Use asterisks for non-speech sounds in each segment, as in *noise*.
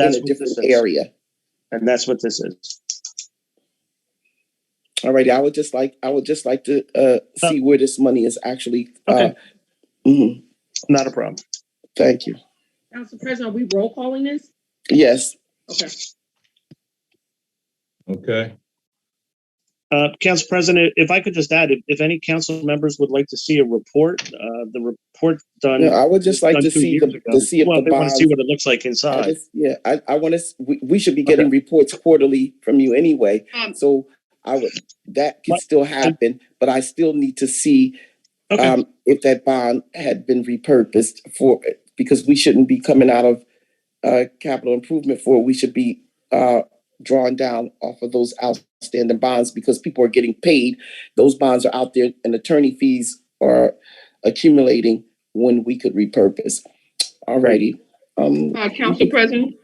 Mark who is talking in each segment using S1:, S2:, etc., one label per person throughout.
S1: in
S2: That's
S1: a
S2: what this
S1: different
S2: is.
S1: area.
S2: And that's what this is.
S1: All right, I would just like, I would just like to, uh, see where this money is actually, uh,
S2: Okay.
S1: mhm,
S2: Not a problem.
S1: thank you.
S3: Council President, are we roll calling this?
S1: Yes,
S3: Okay.
S4: Okay,
S2: Uh, Council President, if I could just add, if, if any council members would like to see a report, uh, the report done.
S1: No, I would just like
S2: done
S1: to
S2: two
S1: see
S2: years
S1: the,
S2: ago-
S1: to see if
S2: Well, they
S1: the
S2: want to
S1: bonds.
S2: see what it looks like
S1: I
S2: inside.
S1: just- Yeah, I, I want to, we, we should be getting reports quarterly from you anyway.
S3: Um,
S1: So I would, that could
S2: What?
S1: still happen, but I still need to see,
S2: Okay.
S1: um, if that bond had been repurposed for, because we shouldn't be coming out of, uh, capital improvement for, we should be, uh, drawing down off of those outstanding bonds because people are getting paid. Those bonds are out there and attorney fees are accumulating when we could repurpose. Alrighty, um,
S3: Uh, Council President,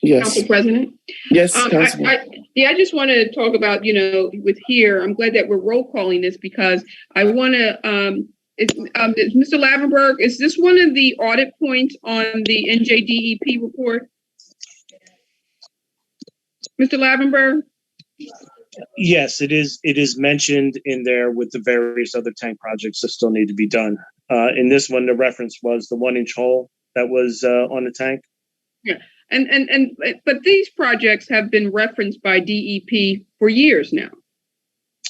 S1: yes.
S3: Council President.
S1: Yes,
S3: Um,
S1: Councilman.
S3: I, I, yeah, I just want to talk about, you know, with here, I'm glad that we're roll calling this because I want to, um, it's, um, it's Mr. Lavenberg, is this one of the audit points on the NJDEP E report? Mr. Lavenberg?
S2: Yes, it is, it is mentioned in there with the various other tank projects that still need to be done. Uh, in this one, the reference was the one inch hole that was, uh, on the tank.
S3: And, and, and, but these projects have been referenced by DEP for years now.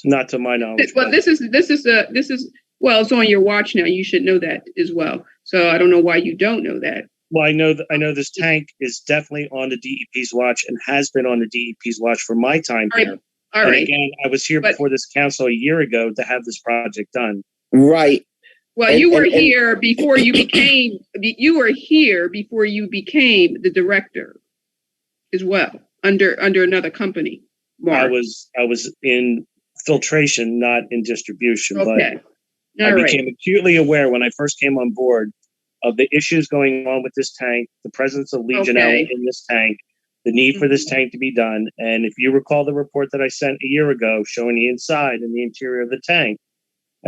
S2: Not to my knowledge.
S3: Well, this is, this is a, this is, well, it's on your watch now. You should know that as well. So I don't know why you don't know that.
S2: Well, I know that I know this tank is definitely on the DEP's watch and has been on the DEP's watch for my time
S3: All right,
S2: here.
S3: All
S2: And
S3: right.
S2: again, I was here
S3: But-
S2: before this council a year ago to have this project done.
S1: Right,
S3: Well,
S1: and-
S3: you were
S1: and- and-
S3: here before you became, you were here before you became the director as well, under, under another company.
S2: I
S3: Mark.
S2: was I was in filtration, not in distribution,
S3: Okay.
S2: but I
S3: All right.
S2: became acutely aware when I first came on board of the issues going on with this tank, the presence of Legionella
S3: Okay. Mm-hmm.
S2: in this tank, the need for this tank to be done. And if you recall the report that I sent a year ago showing the inside and the interior of the tank,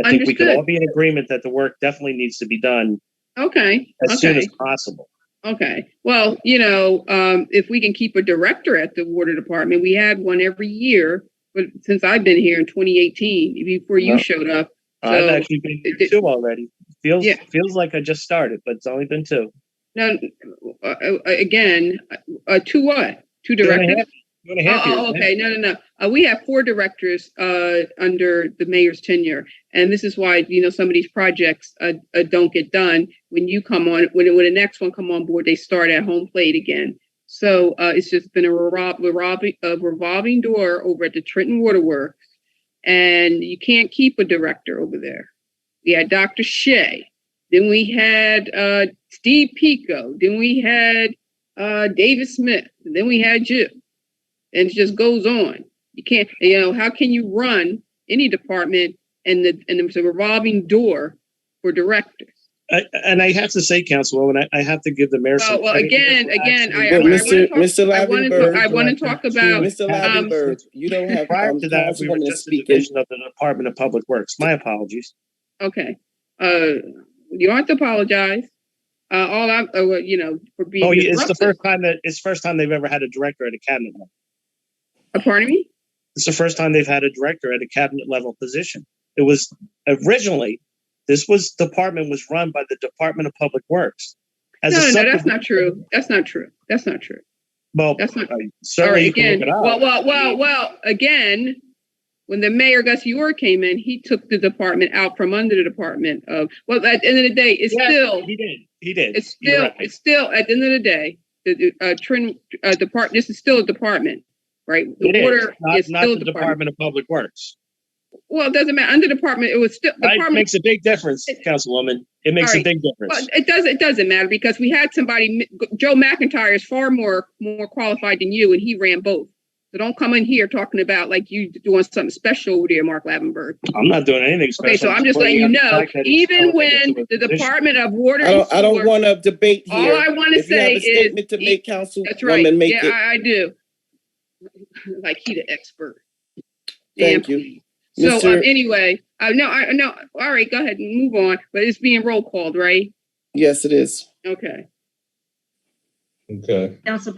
S2: I think we could all
S3: Understood.
S2: be in agreement that the work definitely needs to be done
S3: Okay.
S2: as soon
S3: Okay.
S2: as possible.
S3: Okay, well, you know, um, if we can keep a director at the water department, we had one every year, but since I've been here in twenty eighteen, before
S1: No.
S3: you showed up.
S2: Uh, I've
S3: So,
S2: actually been
S3: it-
S2: here two already. Feels
S3: Yeah.
S2: feels like I just started, but it's only been two.
S3: No, uh, uh, again, uh, to what? Two
S2: Two and a
S3: directors?
S2: half- two and a
S3: Oh,
S2: half years,
S3: oh,
S2: man.
S3: okay, no, no, no. Uh, we have four directors, uh, under the mayor's tenure. And this is why, you know, some of these projects, uh, uh, don't get done. When you come on, when, when the next one come on board, they start at home plate again. So, uh, it's just been a revol- revolving, a revolving door over at the Trenton Waterworks. And you can't keep a director over there. We had Dr. Shea. Then we had, uh, Steve Pico. Then we had, uh, David Smith. And then we had you and it just goes on. You can't, you know, how can you run any department and the and it's a revolving door for directors?
S2: I, and I have to say, Councilwoman, I, I have to give the mayor some.
S3: Oh, Well, well,
S2: credit here
S3: again,
S2: for
S3: again,
S2: actually-
S3: I-
S1: Well,
S3: wanna
S1: Mr.
S3: talk-
S1: Mr.
S3: I want to I
S1: Lavenberg,
S3: want to talk about
S1: Mr.
S2: um,
S1: Lavenberg, you don't have,
S2: Prior
S1: um,
S2: to that, we were
S1: Councilwoman
S2: just a
S1: speaking.
S2: division of the Department of Public Works. My apologies.
S3: okay. Uh, you aren't to apologize. Uh, all I, uh, well, you know, for being.
S2: Oh, yeah, it's the
S3: disruptive.
S2: first time that, it's the first time they've ever had a director at a cabinet level.
S3: Uh, Pardon me.
S2: It's the first time they've had a director at a cabinet level position. It was originally, this was, department was run by the Department of Public Works.
S3: No,
S2: As a
S3: no, no, that's
S2: separate-
S3: not true. That's not true. That's not true.
S2: Well,
S3: That's not. All
S2: certainly
S3: right,
S2: you can
S3: again.
S2: look it up.
S3: Well, well, well, well. Again, when the mayor Gus Yor came in, he took the department out from under the department of. Well, at the end of the day, it's
S2: Yeah,
S3: still
S2: He did, he did.
S3: It's
S2: You're
S3: still,
S2: right.
S3: it's still, at the end of the day, the, the, uh, Trin, uh, depart, this is still a department, right?
S2: It
S3: The
S2: is,
S3: water
S2: not-
S3: is still
S2: Not
S3: a
S2: the
S3: department.
S2: Department of Public Works.
S3: Well, it doesn't matter, under department, it was still,
S2: It
S3: department,
S2: makes a big difference, Councilwoman. It makes a
S3: Alright.
S2: big
S3: well,
S2: difference.
S3: it does, it doesn't matter, because we had somebody, Joe McIntyre is far more, more qualified than you, and he ran both. So don't come in here talking about like you doing something special over there, Mark Lavenberg.
S2: I'm not doing anything special.
S3: Okay, so I'm just letting
S2: pointing
S3: you
S2: out the
S3: know,
S2: fact that it's
S3: even
S2: elevated
S3: when
S2: to a
S3: the
S2: position.
S3: Department of Water
S1: I don't, I
S3: and
S1: don't
S3: Sewer,
S1: want to debate
S3: all
S1: here.
S3: I want to
S1: If you have
S3: say
S1: a
S3: is.
S1: statement to
S3: e-
S1: make,
S3: That's right.
S1: Councilwoman, make
S3: yeah,
S1: it.
S3: I, I do. *laughs* Like he the expert. Damn.
S1: Thank you.
S3: So um,
S1: Mr.
S3: anyway, uh, no, I no. All right, go ahead and move on. But it's being roll called, right?
S1: Yes, it is.
S3: Okay.
S5: Okay.
S4: Council